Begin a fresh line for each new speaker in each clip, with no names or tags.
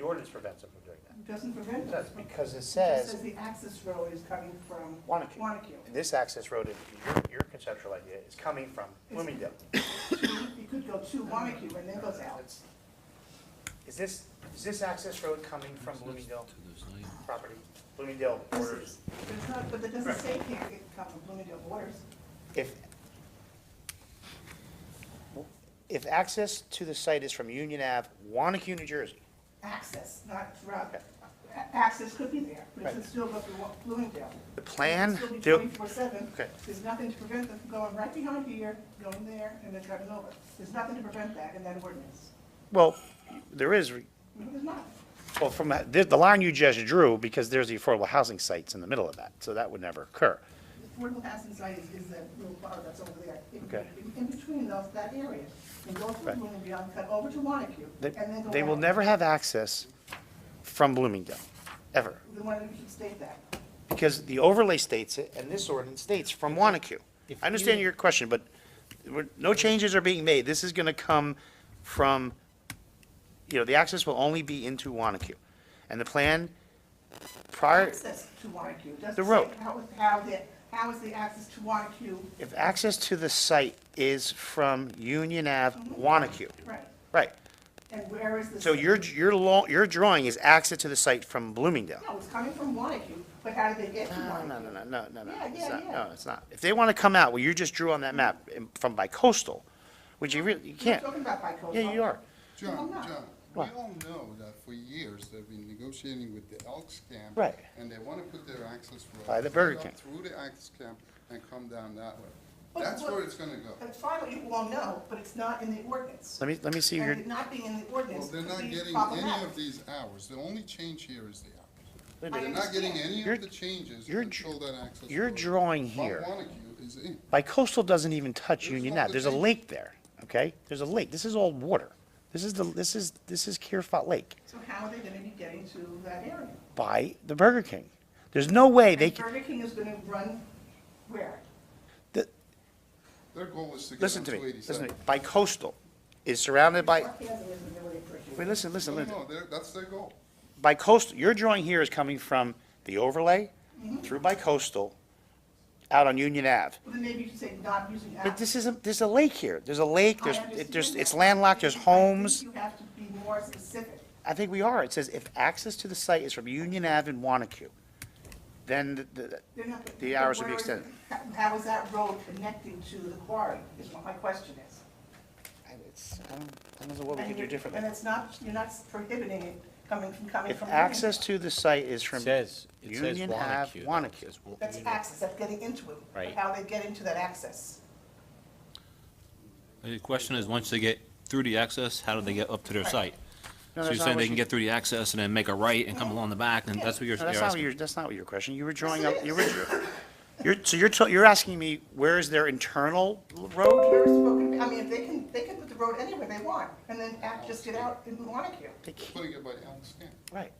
ordinance prevents them from doing that.
It Doesn't prevent
It
us.
does,
from-
because it
It just
says
says the access road is coming from
Wanacue.
Wanacue.
This access road, if your, your conceptual idea is coming from Bloomingdale.
You could go to Wanacue and then goes out.
That's- Is this, is this access road coming from Bloomingdale property? Bloomingdale
This
borders?
is- It's not, but it doesn't
Right.
say it can't get- come from Bloomingdale borders.
If, if access to the site is from Union Ave, Wanacue, New Jersey,
Access, not throughout.
Okay.
A- Access could be there, but it should
Right.
still go through Wa- Bloomingdale.
the
It'll
plan,
Still be
the-
twenty-four seven.
Okay.
There's nothing to prevent them from going right behind here, going there, and then coming over. There's nothing to prevent that in that ordinance.
well, there is, re-
No, There's not.
well, from, that- the, the line you just drew, because there's the affordable housing sites in the middle of that, so that would never occur.
Affordable housing site is, is that little bar that's over there. In-
Okay.
in- In between those, that area, and go through
Right.
Bloomingdale, cut over to Wanacue,
They,
and then go
they will
out.
never have access from Bloomingdale, ever.
We wanted to state that.
Because the overlay states it, and this ordinance states from Wanacue. I understand your question, but we're- no changes are being made. This is gonna come from, you know, the access will only be into Wanacue. And the plan prior,
Access to Wanacue. It doesn't
The
say
road.
How, how the, how is the access to Wanacue,
if access to the site is from Union Ave,
Mm-hmm.
Wanacue,
right,
right.
and where is the?
So your, your law, your drawing is access to the site from Bloomingdale.
No, it's coming from Wanacue, but how do they get to
No,
Wanacue?
no, no, no, no, no, no.
Uh, Yeah,
it's
yeah,
not-
yeah.
No, it's not. If they wanna come out, well, you just drew on that map in- from by coastal, which you really, you
You're
can't.
talking about by coastal.
Yeah, you are.
No, I'm
John,
not.
John, we
What?
all know that for years they've been negotiating with the Elks Camp.
Right.
And they want to put their access road.
By the Burger
straight up
King.
Through the Elks Camp and come down that way.
But
That's
what-
where it's gonna go.
And finally, you all know, but it's not in the ordinance.
Let me, let me see your,
And it not being in the ordinance
Well, they're
could
not
be
getting any
problematic.
of these hours. The only change here is the hours.
Wait a
I
They're not getting
understand.
any
Your-
of the changes
your dr-
until that access road.
your drawing
from
here-
Wanacue is in.
by coastal doesn't even touch
There's
Union
no
Ave. There's a
protection.
lake there, okay? There's a lake. This is all water. This is the, this is, this is Kierfat Lake
So how are they gonna be getting to that area?
by the Burger King. There's no way they
And
can,
Burger King is gonna run where?
the-
Their goal is to get
listen
on
to
two
me,
eighty-seven.
listen to me. By coastal is surrounded by,
Sarcasm isn't really appreciated.
wait, listen, listen, listen.
No, no, they're- that's their goal.
by coastal, your drawing here is coming from the overlay through by coastal out on Union Ave.
Well, Then maybe you should say not using
But
apps.
this is, a there's a lake here. There's a lake,
I
there's, it-
understand
there's, it's
that.
landlocked, there's
I think
homes.
You have to be more specific.
I think we are. It says if access to the site is from Union Ave and Wanacue, then the, the-
They're not gonna-
The hours
but
will be
where is-
extended.
how- How is that road connecting to the quarry, is what my question is.
it's, I don't, I don't know what we can
And
do
you-
differently.
And it's not, you're not prohibiting it coming from, coming
If
from.
access to the site is from
Says, it says
Union Ave,
Wanacue. though. It
Wanacue.
says Wa-
That's
Union-
access, that's getting into it. but
Right.
How they get into that access.
The question is, once they get through the access, how do they get up to their site?
No,
So
that's
you're
not
saying
what
they can
you-
get through the access and then make a right and come along the back, and that's what you're
No, that's not what
asking?
your, that's not what your question. You were drawing up, you were, you're, so you're, t- you're asking me, where is their internal road?
We're spoken, I mean, if they can, they can put the road anywhere they want, and then act- just get out in Wanacue.
They can't-
Putting it by Elks Camp.
Right.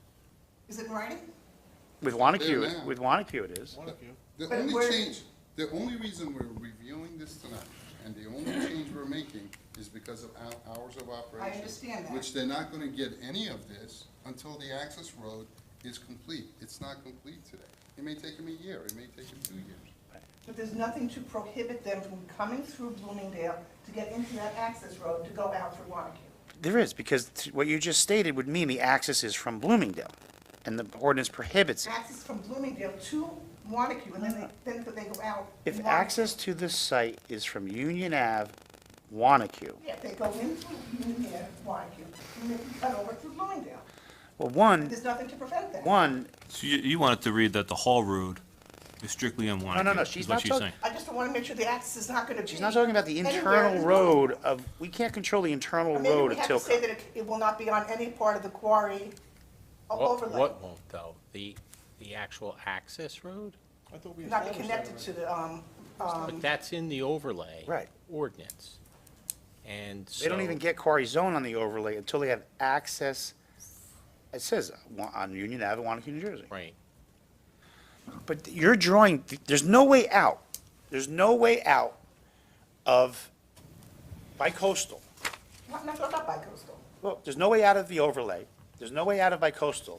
Is it in writing?
With Wanacue,
There now.
with Wanacue it is.
The
But
only
we're-
change, the only reason we're reviewing this tonight, and the only change we're making is because of hou- hours of operation.
understand that.
Which they're not gonna get any of this until the access road is complete. It's not complete today. It may take them a year, it may take them two years.
But there's nothing to prohibit them from coming through Bloomingdale to get into that access road to go out through Wanacue.
There is, because t- what you just stated would mean the access is from Bloomingdale, and the ordinance prohibits it.
Access from Bloomingdale to Wanacue, and then they, then they go out. in
If
Wanacue.
access to this site is from Union Ave, Wanacue,
Yeah, they go in through Bloomingdale, Wanacue, and then cut over through Bloomingdale.
well, one,
There's nothing to prevent that.
one,
So you, you wanted to read that the Hall Road is strictly in Wanacue?
no, no,
is
she's
what
not talking-
saying.
I just don't want to make sure the access is not going to be.
she's not talking about the
anywhere
internal
in-
road of, we can't control the internal
Or Maybe
road
we
of
have to say
Tilcon.
that it- it will not be on any part of the quarry o-
What,
overlay.
what won't though? The, the actual access road?
Not be connected to the, um,
But that's in the overlay.
Right.
Ordinance. And so.
They don't even get quarry zone on the overlay until they have access, it says, uh, Wa- on Union Ave, Wanacue, New Jersey.
Right.
But you're drawing, there's no way out, there's no way out of bi-coastal.
not, not, not by coastal.
Well, there's no way out of the overlay There's no way out of bicoastal.